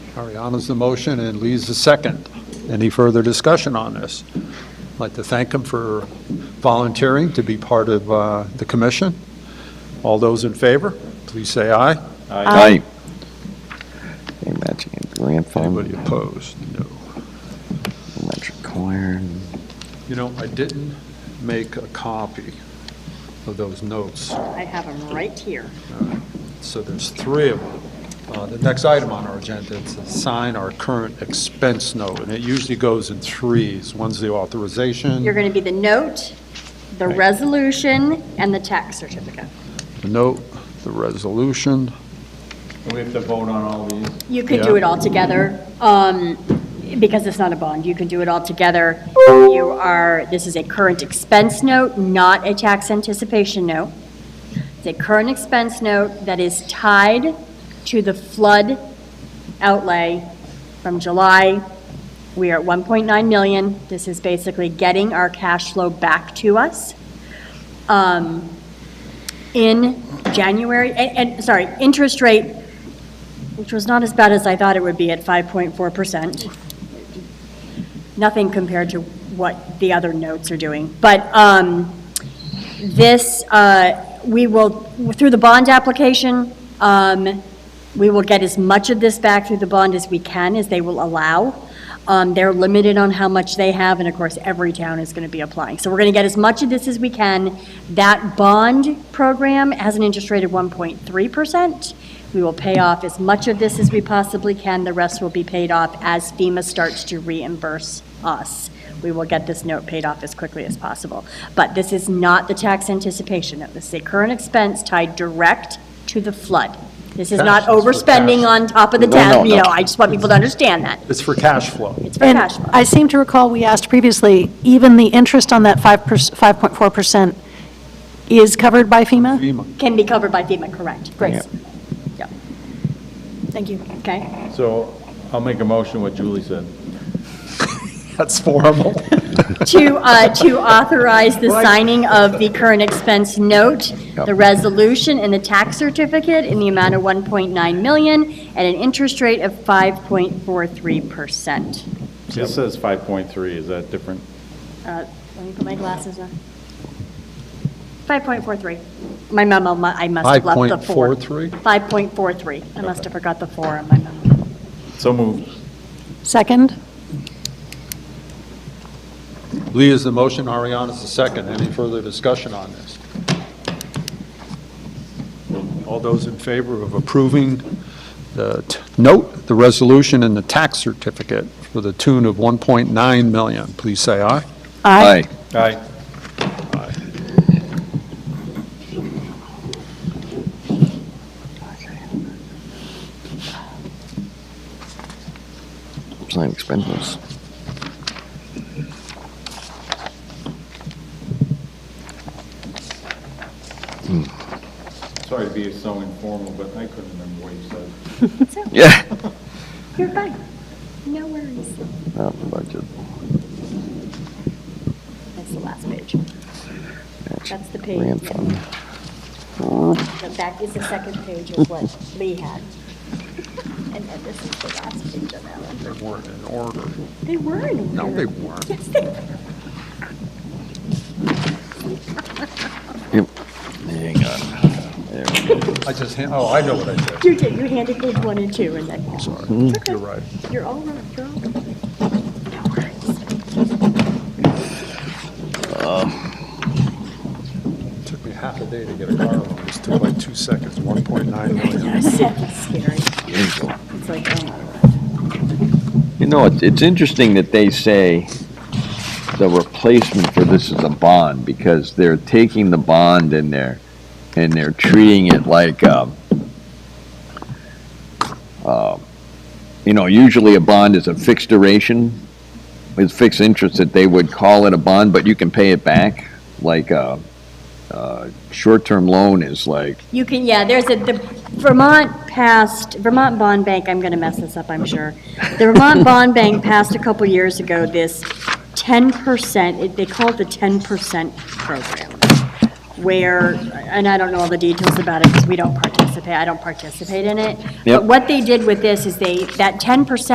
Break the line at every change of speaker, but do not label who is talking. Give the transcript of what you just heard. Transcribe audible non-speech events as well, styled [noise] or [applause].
Ariana's the motion and Lee's the second. Any further discussion on this? I'd like to thank him for volunteering to be part of uh, the commission. All those in favor, please say aye.
Aye. Okay, Matching and grant
Anybody
fund,
opposed? No.
match required.
You know, I didn't make a copy of those notes.
I have them right here.
So there's three of them. Uh, The next item on our agenda is to sign our current expense note, and it usually goes in threes. One's the authorization,
You're going to be the note, the
Right.
resolution, and the tax certificate.
the note, the resolution.
We have to vote on all these?
You could do
Yeah.
it all together, um, because it's not a bond. You can do it all together. You are, this is a current expense note, not a tax anticipation note. It's a current expense note that is tied to the flood outlay from July. We are at 1.9 million. This is basically getting our cash flow back to us. Um, In January, and, and, sorry, interest rate which was not as bad as I thought it would be at 5.4%. Nothing compared to what the other notes are doing. But um, this, uh, we will, through the bond application, um, we will get as much of this back through the bond as we can, as they will allow. Um, They're limited on how much they have, and of course, every town is going to be applying. So we're going to get as much of this as we can. That bond program has an interest rate of 1.3%. We will pay off as much of this as we possibly can. The rest will be paid off as FEMA starts to reimburse us. We will get this note paid off as quickly as possible. But this is not the tax anticipation note. This is a current expense tied direct to the flood. This is
Cash,
not
it's for cash.
overspending on top of the
No, no,
town, you
no.
know, I just want people to understand that.
It's for cash flow.
[laughs]
It's for
And
cash flow.
I seem to recall, we asked previously, even the interest on that 5%, 5.4% is covered by FEMA?
FEMA.
Can be covered by FEMA, correct?
Great.
Yeah,
Thank you.
okay.
So I'll make a motion what Julie said.
That's [laughs] formal.
To, uh, to authorize the signing of the current expense note, the resolution, and the tax certificate in the amount of 1.9 million at an interest rate of 5.43%.
This says 5.3, is that different?
Uh, Let me put my glasses on. 5.43. My memo, mu- I must have left the four.
5.43?
5.43. I must have forgot the four on my memo.
So moved.
Second?
Lee is the motion, Ariana's the second. Any further discussion on this? All those in favor of approving the t- note, the resolution, and the tax certificate for the tune of 1.9 million, please say aye.
Aye.
Aye.
Sign expenses.
Sorry to be so informal, but I couldn't remember what you said.
Yeah.
You're fine. No worries.
Not in budget.
That's the last page. That's the page.
Grant fund.
The back is the second page of what Lee had. [laughs] And then this is the last page of that one.
They weren't in order.
They were in order.
No, they weren't.
Yes, they were.
Yep. Hang on. There we go.
I just, hand- oh, I know what I did.
You did, you handed page one and two, and then,
Sorry. You're right.
you're all right, you're all right. No worries.
Took me half a day to get a car loan. This took like two seconds, 1.9 million.
[laughs] It's scary.
There you go.
It's like, oh my
You know, it's, it's interesting that they say the replacement for this is a bond, because they're taking the bond in there, and they're treating it like, um, uh, you know, usually a bond is a fixed duration, with fixed interest that they would call it a bond, but you can pay it back, like, uh, uh, short-term loan is like,
You can, yeah, there's a, the Vermont passed, Vermont Bond Bank, I'm going to mess this up, I'm sure. The Vermont Bond Bank passed a couple years ago this 10%, it- they call it the 10% program, where, and I don't know all the details about it because we don't participate participate, I don't participate in it.
Yep.
But what they did with this is they, that 10%